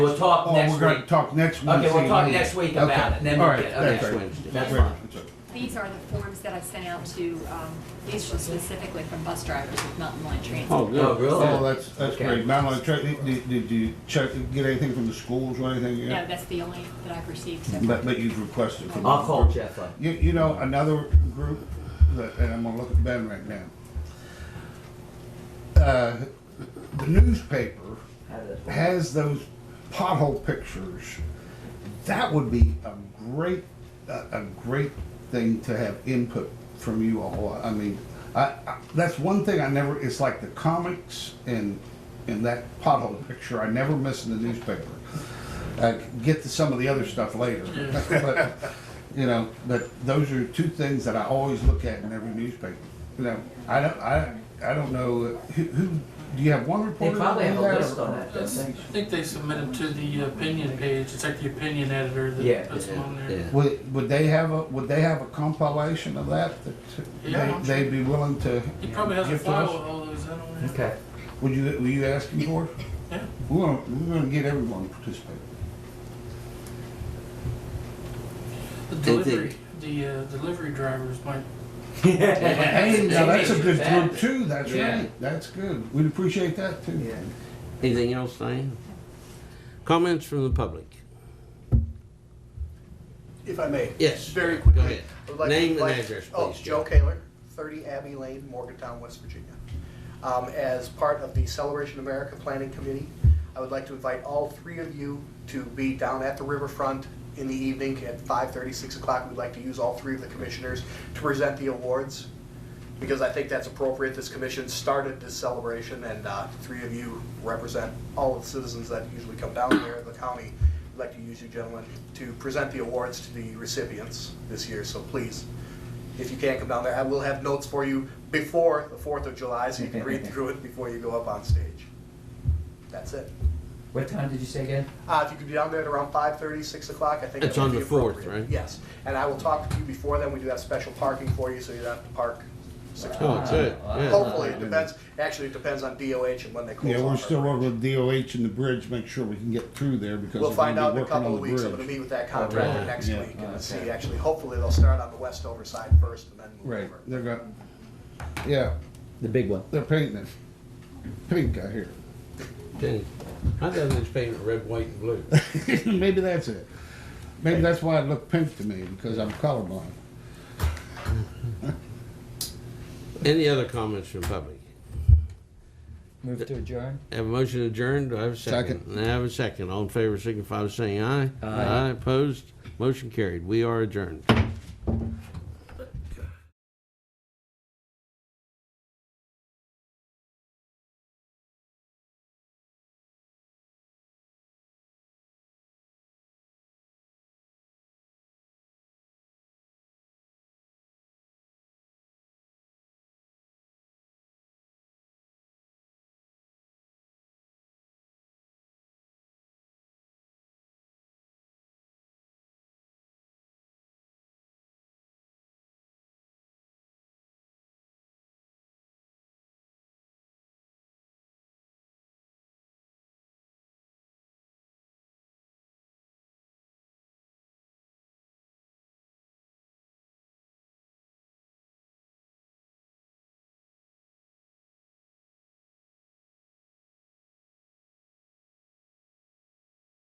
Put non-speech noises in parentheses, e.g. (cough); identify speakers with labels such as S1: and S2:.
S1: We'll talk
S2: Oh,
S1: next
S2: we're gonna
S1: week.
S2: talk next Wednesday.
S1: Okay, we'll talk
S2: night.
S1: next week about it, and then
S2: All
S1: we'll
S2: right,
S1: get,
S2: that's
S1: okay.
S2: right.
S1: Wednesday. That's
S2: That's right.
S1: fine.
S2: That's right.
S3: These are the forms that I sent out to, um, these were specifically from bus drivers with Mountain Line Transit.
S4: Oh,
S1: Oh,
S4: good.
S2: Oh,
S1: really?
S2: that's, that's
S1: Okay.
S2: great. Madeline, check, did, did you check, get anything from the schools or anything
S3: No,
S2: yet?
S3: that's the only that I've received. so far.
S2: But, but you've requested from.
S1: I'll call Jeff up.
S2: You, you know, another group, that- and I'm gonna look at Ben right now. Uh, The newspaper has those pothole pictures. That would be a great, a, a great thing to have input from you all. I mean, I, I, that's one thing I never, it's like the comics and, and that pothole picture, I never miss in the newspaper. I get to some of the other stuff later, (laughs) but, you know, but those are two things that I always look at in every newspaper. You know, I don't, I, I don't know, who, who, do you have one
S1: They
S2: reporter?
S1: probably
S2: that
S1: have
S2: do
S1: a
S2: that,
S1: list
S2: or-
S1: on that,
S5: I
S1: don't they?
S5: think they submit them to the opinion page, it's like the opinion editor
S1: Yeah,
S5: that puts them on there.
S4: Yeah.
S2: Would, would they have a, would they have a compilation of that
S5: Yeah,
S2: that
S5: I'm
S2: they, they'd be willing to
S5: He probably has a
S2: give to
S5: file with
S2: us?
S5: all those, I don't know.
S1: Okay.
S2: Would you, were you asking for? it?
S5: (laughs) Yeah.
S2: We're gonna, we're gonna get everyone to participate.
S5: The
S4: Did they-
S5: delivery, the, uh, delivery drivers might,
S2: Hey, now that's a good group
S1: Yeah.
S2: too, that's
S1: Yeah.
S2: right, that's good, we'd appreciate that too.
S4: Anything else, Diane? Comments from the public?
S6: If I may.
S4: Yes.
S6: Very
S4: Go ahead.
S6: quickly. I would like to
S4: Name and
S6: invite-
S4: address,
S6: Oh,
S4: please,
S6: Joe
S4: Joe.
S6: Kaler, 30 Abbey Lane, Morgantown, West Virginia. Um, As part of the Celebration America Planning Committee, I would like to invite all three of you to be down at the riverfront in the evening at 5:30, 6 o'clock. We'd like to use all three of the commissioners to present the awards, because I think that's appropriate. This commission started this celebration, and uh, three of you represent all of the citizens that usually come down here, the county. I'd like to use you gentlemen to present the awards to the recipients this year, so please, if you can't come down there, I will have notes for you before the Fourth of July, so you can read through it before you go up on stage. That's it.
S1: What time did you say again?
S6: Uh, if you could be down there at around five thirty, six o'clock, I think. that
S4: It's
S6: would
S4: on
S6: be
S4: the 4th,
S6: appropriate.
S4: right?
S6: Yes, and I will talk to you before then, we do have special parking for you, so you don't have to park six
S4: Oh,
S1: Uh,
S6: blocks.
S4: it's good. Yeah.
S6: Hopefully, it depends, actually, it depends on DOH and when they close.
S2: Yeah, we're
S6: off
S2: still
S6: our-
S2: working with DOH and the bridge, make sure we can get through there because
S6: We'll
S2: we're
S6: find
S2: gonna
S6: out
S2: be
S6: in a
S2: working
S6: couple
S2: on
S6: of weeks, I'm
S2: the
S6: gonna
S2: bridge.
S6: meet with that
S4: right.
S6: contractor next
S2: Yeah.
S6: week
S1: Oh,
S6: and see,
S1: okay.
S6: actually, hopefully, they'll start on the Westover side first and then move
S2: Right,
S6: over.
S2: they're got, yeah,
S7: The big one.
S2: they're painting it, pink I hear.
S4: Jenny, I thought they was painted red, white, and blue.
S2: (laughs) Maybe that's it. Maybe that's why it looked pink to me, because I'm colorblind.
S4: Any other comments from public?
S7: Move to adjourn.
S4: Have a motion adjourned, do I have a second? I have a second, all in favor signify by saying aye. Aye. Opposed, motion carried, we are adjourned.